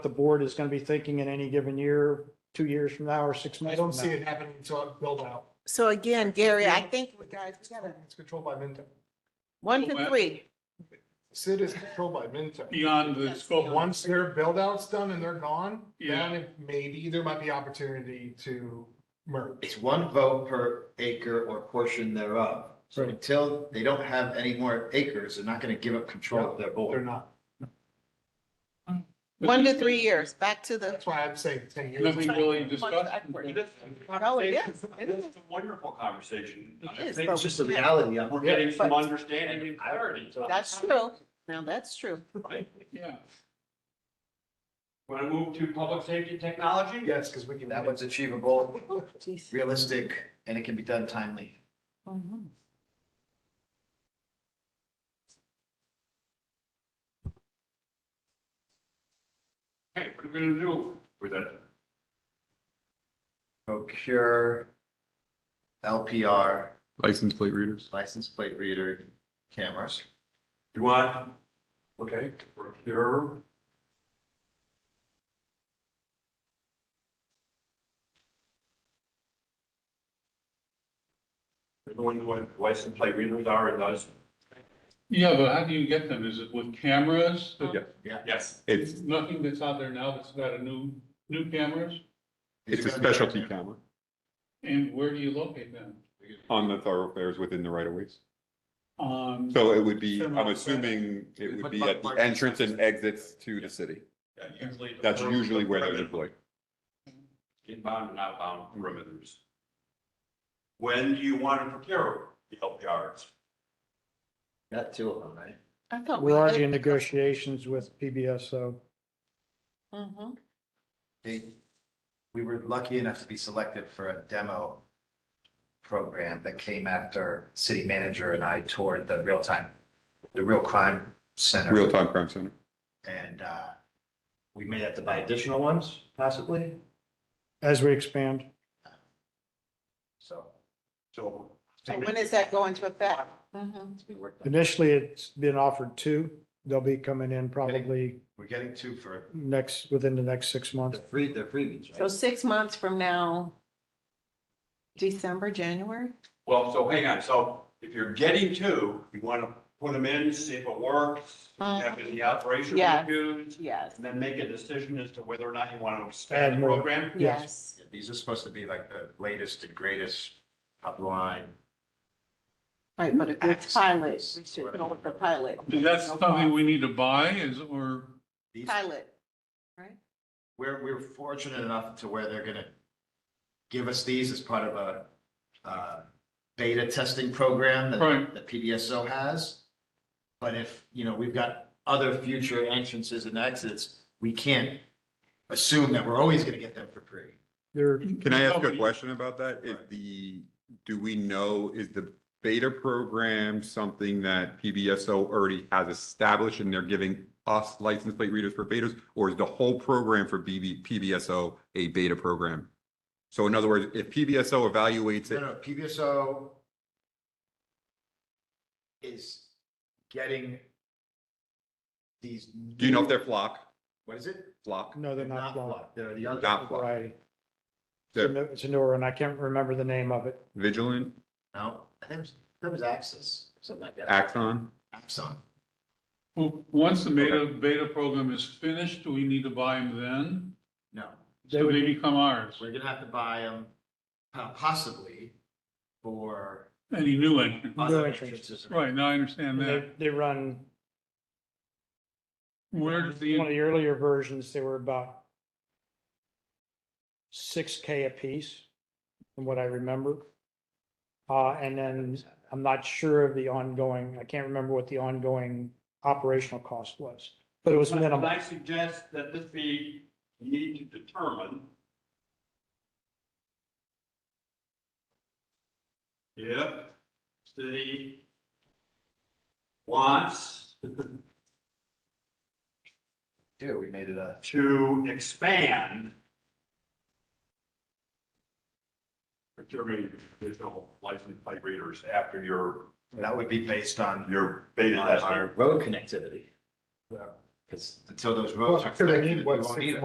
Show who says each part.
Speaker 1: the board is going to be thinking in any given year, two years from now or six months.
Speaker 2: I don't
Speaker 1: from
Speaker 2: see
Speaker 1: now.
Speaker 2: it happening until it's built out.
Speaker 3: So again, Gary, I
Speaker 2: Yeah.
Speaker 3: think, Oh, guys, we gotta,
Speaker 2: It's controlled by Minto.
Speaker 3: one to
Speaker 4: Well,
Speaker 3: three.
Speaker 2: Sid is controlled by Minto.
Speaker 4: beyond the
Speaker 2: But
Speaker 4: scope one.
Speaker 2: once their build out's done and they're gone,
Speaker 4: Yeah.
Speaker 2: then it- maybe there might be opportunity to merge.
Speaker 5: It's one vote per acre or portion thereof. So
Speaker 2: Right.
Speaker 5: until they don't have any more acres, they're not going to give up control of their
Speaker 2: They're
Speaker 5: board.
Speaker 2: not.
Speaker 3: One to three years, back to the,
Speaker 2: That's why I'm saying ten years.
Speaker 4: Then we really discuss.
Speaker 6: Oh,
Speaker 3: No, it is. It is.
Speaker 6: It's a wonderful conversation.
Speaker 3: It
Speaker 6: I
Speaker 3: is,
Speaker 6: think
Speaker 3: but
Speaker 5: It's just a reality. I'm-
Speaker 6: We're getting some
Speaker 3: But-
Speaker 6: understanding and clarity. so-
Speaker 3: that's true. Now, that's true.
Speaker 6: Right?
Speaker 4: Yeah.
Speaker 6: Want to move to public safety technology?
Speaker 2: Yes, because we can.
Speaker 5: That one's achievable,
Speaker 3: Jeez.
Speaker 5: realistic, and it can be done timely.
Speaker 3: Mhm.
Speaker 6: Okay, what are we gonna do with that?
Speaker 5: Procure LPR,
Speaker 7: License plate readers.
Speaker 5: license plate reader cameras.
Speaker 6: You want, okay, procure. Everyone know what license plate readers are and those?
Speaker 4: Yeah, but how do you get them? Is it with cameras?
Speaker 7: Yeah.
Speaker 6: Yes.
Speaker 7: It's,
Speaker 4: Nothing that's out there now that's got a new, new cameras?
Speaker 7: it's a specialty camera
Speaker 4: And where do you locate them?
Speaker 7: on the thoroughfares within the right of ways.
Speaker 4: Um,
Speaker 7: So it would be,
Speaker 4: Similar.
Speaker 7: I'm assuming it would be at the entrance and exits to the city.
Speaker 6: usually the
Speaker 7: That's
Speaker 6: perimeter-
Speaker 7: usually where they're
Speaker 6: perimeter.
Speaker 7: deployed.
Speaker 6: inbound and outbound perimeters. When do you want to procure the LPRs?
Speaker 5: Got two of them, right?
Speaker 3: I thought we
Speaker 1: We're already
Speaker 3: did-
Speaker 1: in negotiations with PBS, so.
Speaker 3: Mhm.
Speaker 5: They, we were lucky enough to be selected for a demo program that came after city manager and I toured the real time, the real crime center.
Speaker 7: Real time crime center.
Speaker 5: And uh, we may have to buy additional ones possibly,
Speaker 1: As we expand,
Speaker 5: so.
Speaker 6: So.
Speaker 3: So when is that going to affect? Mhm.
Speaker 5: it's gonna work.
Speaker 1: initially it's been offered two. They'll be coming in probably
Speaker 5: We're getting two for
Speaker 1: next, within the next six months.
Speaker 5: the free, the freebies,
Speaker 3: So
Speaker 5: right?
Speaker 3: six months from now, December, January?
Speaker 6: Well, so hang on, so if you're getting two, you want to put them in, see if it works, have the operation
Speaker 3: Yeah.
Speaker 6: reviews,
Speaker 3: Yes,
Speaker 6: and then make a decision as to whether or not you want to
Speaker 1: Add
Speaker 6: expand the
Speaker 1: more.
Speaker 6: program.
Speaker 3: yes.
Speaker 5: These are supposed to be like the latest and greatest top line.
Speaker 3: Right, but if it's pilot, we should go with the pilot.
Speaker 4: is that something we need to buy is, or,
Speaker 5: These,
Speaker 3: Pilot.
Speaker 5: we're, we're fortunate enough to where they're gonna give us these as part of a uh, beta testing program that
Speaker 4: right,
Speaker 5: that PBSO has. But if, you know, we've got other future entrances and exits, we can't assume that we're always gonna get them for free.
Speaker 1: They're,
Speaker 7: Can I ask a question about that? Is the, do we know, is the beta program something that PBSO already has established and they're giving us license plate readers for betas? Or is the whole program for BB, PBSO a beta program? So in other words, if PBSO evaluates
Speaker 5: No,
Speaker 7: it,
Speaker 5: no, PBSO is getting these.
Speaker 7: do you know if
Speaker 5: new-
Speaker 7: they're flock,
Speaker 5: What is it?
Speaker 7: flock?
Speaker 1: no, they're not blocked.
Speaker 5: blocked. They're the other.
Speaker 7: Not flock.
Speaker 1: Variety. It's a
Speaker 7: They're
Speaker 1: new- it's a newer one. I can't remember the name of it.
Speaker 7: Vigilant,
Speaker 5: No, I think it was- that was Axis, something like that.
Speaker 7: Axon?
Speaker 5: Axon.
Speaker 4: well, once the beta, beta program is finished, do we need to buy them then?
Speaker 5: No.
Speaker 1: They
Speaker 4: So
Speaker 1: would-
Speaker 4: they become ours,
Speaker 5: We're gonna have to buy them possibly for
Speaker 4: any new entrant?
Speaker 5: other
Speaker 1: entrance.
Speaker 5: entrances.
Speaker 4: Right, now I understand that.
Speaker 1: They, they run,
Speaker 4: Where
Speaker 1: one
Speaker 4: does
Speaker 1: of the
Speaker 4: the,
Speaker 1: earlier versions, they were about six K apiece, from what I remember. Uh, and then I'm not sure of the ongoing, I can't remember what the ongoing operational cost was, but it was
Speaker 6: And
Speaker 1: minimal.
Speaker 6: I suggest that this be, you need to determine. If city wants
Speaker 5: Dude, we made it a.
Speaker 6: to expand procuring additional license plate readers after your,
Speaker 5: That would be based on
Speaker 6: your beta
Speaker 5: on our
Speaker 6: tester.
Speaker 5: road connectivity.
Speaker 1: Because until those
Speaker 5: Well,
Speaker 1: roads are
Speaker 5: sure, they
Speaker 1: connected, we
Speaker 5: need, what,
Speaker 1: won't
Speaker 5: six
Speaker 1: need it.